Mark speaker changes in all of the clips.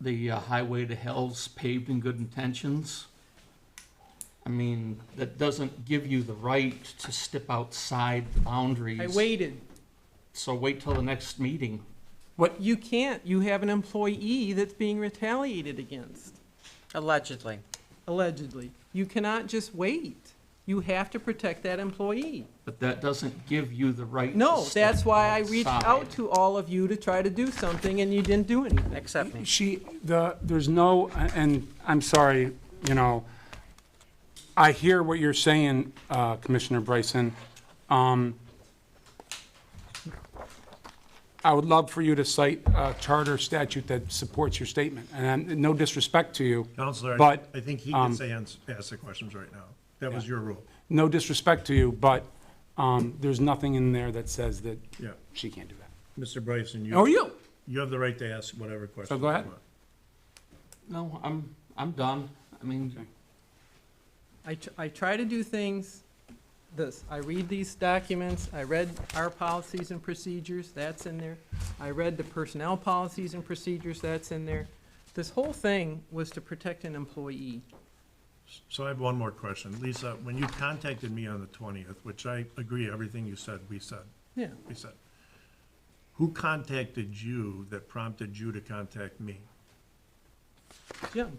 Speaker 1: the uh, highway to hell's paved in good intentions. I mean, that doesn't give you the right to step outside the boundaries.
Speaker 2: I waited.
Speaker 1: So wait till the next meeting.
Speaker 2: What, you can't, you have an employee that's being retaliated against,
Speaker 3: Allegedly.
Speaker 2: allegedly. You cannot just wait. You have to protect that employee.
Speaker 1: But that doesn't give you the right. to
Speaker 2: No,
Speaker 1: step
Speaker 2: that's why I reached out
Speaker 1: outside.
Speaker 2: to all of you to try to do something, and you didn't do anything.
Speaker 3: Accept me.
Speaker 4: She, the, there's no, and I'm sorry, you know, I hear what you're saying, uh, Commissioner Bryson. Um, I would love for you to cite a charter statute that supports your statement, and I'm- no disrespect to you.
Speaker 5: Counselor, I-
Speaker 4: But- um,
Speaker 5: I think he can say, ans- ask the questions right now. That was your rule.
Speaker 4: No disrespect to you, but um, there's nothing in there that says that
Speaker 5: Yeah.
Speaker 4: she can't do that.
Speaker 5: Mr. Bryson, you.
Speaker 4: Or you.
Speaker 5: You have the right to ask whatever question.
Speaker 4: Oh, So go
Speaker 5: you
Speaker 4: ahead.
Speaker 5: want.
Speaker 1: No, I'm, I'm done. I mean,
Speaker 2: I, tr- I try to do things, this, I read these documents, I read our policies and procedures, that's in there. I read the personnel policies and procedures, that's in there. This whole thing was to protect an employee.
Speaker 5: So I have one more question. Lisa, when you contacted me on the twentieth, which I agree, everything you said, we said,
Speaker 2: Yeah,
Speaker 5: we said. Who contacted you that prompted you to contact me?
Speaker 2: Jim,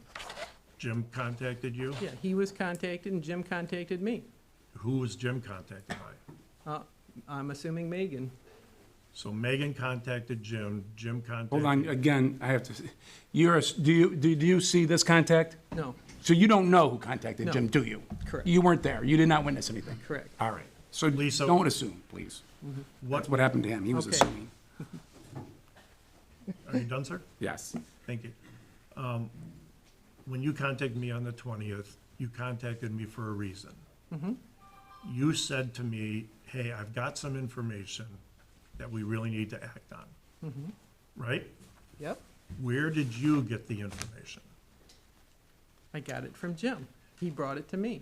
Speaker 5: Jim contacted you?
Speaker 2: yeah, he was contacted and Jim contacted me.
Speaker 5: Who was Jim contacted by?
Speaker 2: Uh, I'm assuming Megan.
Speaker 5: So Megan contacted Jim, Jim contacted.
Speaker 4: Hold on, again, I have to, you're, a s- do you, do do you see this contact?
Speaker 2: No,
Speaker 4: So you don't know who contacted
Speaker 2: No.
Speaker 4: Jim, do you?
Speaker 2: Correct.
Speaker 4: You weren't there. You did not witness anything.
Speaker 2: correct.
Speaker 4: All right. So
Speaker 5: Lisa-
Speaker 4: don't assume, please.
Speaker 5: What,
Speaker 4: That's what happened to him. He was
Speaker 2: Okay.
Speaker 4: assuming.
Speaker 5: are you done, sir?
Speaker 4: Yes.
Speaker 5: Thank you. Um, When you contacted me on the 20th, you contacted me for a reason. You said to me, hey, I've got some information that we really need to act on. Right?
Speaker 2: Yep,
Speaker 5: Where did you get the information?
Speaker 2: I got it from Jim. He brought it to me.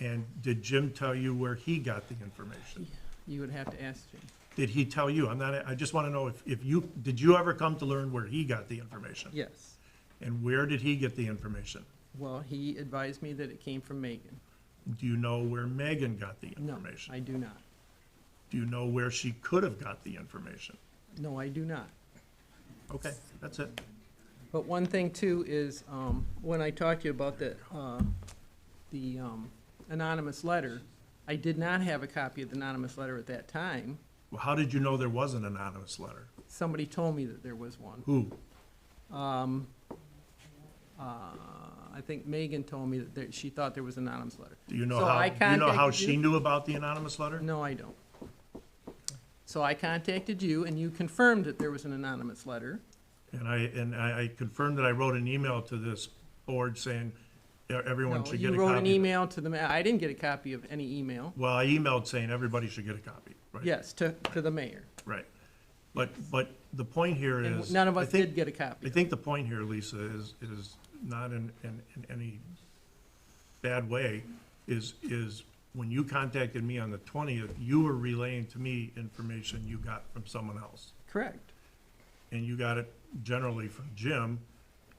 Speaker 5: And did Jim tell you where he got the information?
Speaker 2: You would have to ask Jim.
Speaker 5: Did he tell you? I'm not, I just want to know if, if you, did you ever come to learn where he got the information?
Speaker 2: Yes.
Speaker 5: And where did he get the information?
Speaker 2: Well, he advised me that it came from Megan.
Speaker 5: Do you know where Megan got the
Speaker 2: No,
Speaker 5: information?
Speaker 2: I do not.
Speaker 5: Do you know where she could have got the information?
Speaker 2: No, I do not.
Speaker 5: Okay, that's it.
Speaker 2: But one thing too is, um, when I talked to you about the, uh, the, um, anonymous letter, I did not have a copy of the anonymous letter at that time.
Speaker 5: Well, how did you know there was an anonymous letter?
Speaker 2: Somebody told me that there was one.
Speaker 5: Who?
Speaker 2: Um, uh, I think Megan told me that there, she thought there was an anonymous letter.
Speaker 5: Do you know
Speaker 2: So
Speaker 5: how,
Speaker 2: I
Speaker 5: do you know how
Speaker 2: contacted
Speaker 5: she
Speaker 2: you.
Speaker 5: knew about the anonymous letter?
Speaker 2: No, I don't. So I contacted you and you confirmed that there was an anonymous letter.
Speaker 5: And I, and I I confirmed that I wrote an email to this board saying e- everyone
Speaker 2: No,
Speaker 5: should get a
Speaker 2: You wrote an
Speaker 5: copy.
Speaker 2: email to the, ma- I didn't get a copy of any email.
Speaker 5: Well, I emailed saying everybody should get a copy, right?
Speaker 2: Yes, to, to the mayor.
Speaker 5: Right. But, but the point here
Speaker 2: And
Speaker 5: is.
Speaker 2: none of
Speaker 5: I
Speaker 2: us
Speaker 5: think-
Speaker 2: did get a copy.
Speaker 5: I think the point here, Lisa, is, is not in, in, in any bad way, is, is when you contacted me on the twentieth, you were relaying to me information you got from someone else.
Speaker 2: Correct.
Speaker 5: And you got it generally from Jim,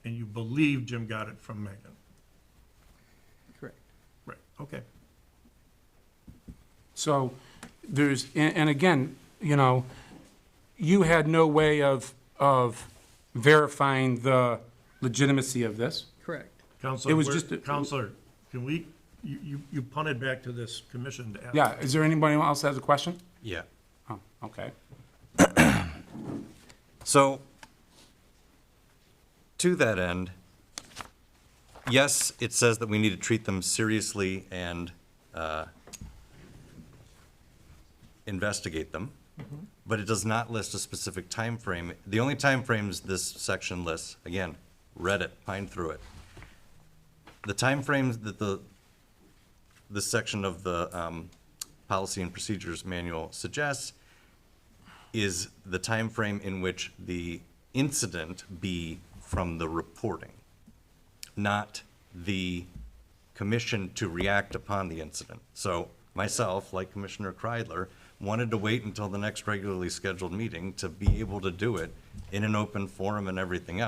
Speaker 5: and you believe Jim got it from Megan.
Speaker 2: Correct.
Speaker 5: Right, okay.
Speaker 4: So there's, and, and again, you know, you had no way of, of verifying the legitimacy of this.
Speaker 2: Correct.
Speaker 5: Counselor,
Speaker 4: It was
Speaker 5: where-
Speaker 4: just a-
Speaker 5: Counselor, can we, you, you, you punted back to this commission to ask.
Speaker 4: Yeah. Is there anybody else that has a question?
Speaker 6: Yeah.
Speaker 4: Oh, okay.
Speaker 6: So, to that end, yes, it says that we need to treat them seriously and uh, investigate them, but it does not list a specific time frame. The only time frames this section lists, again, read it, pine through it. The time frames that the, this section of the um, policy and procedures manual suggests is the time frame in which the incident be from the reporting, not the commission to react upon the incident. So myself, like Commissioner Kreidler, wanted to wait until the next regularly scheduled meeting to be able to do it in an open forum and everything else.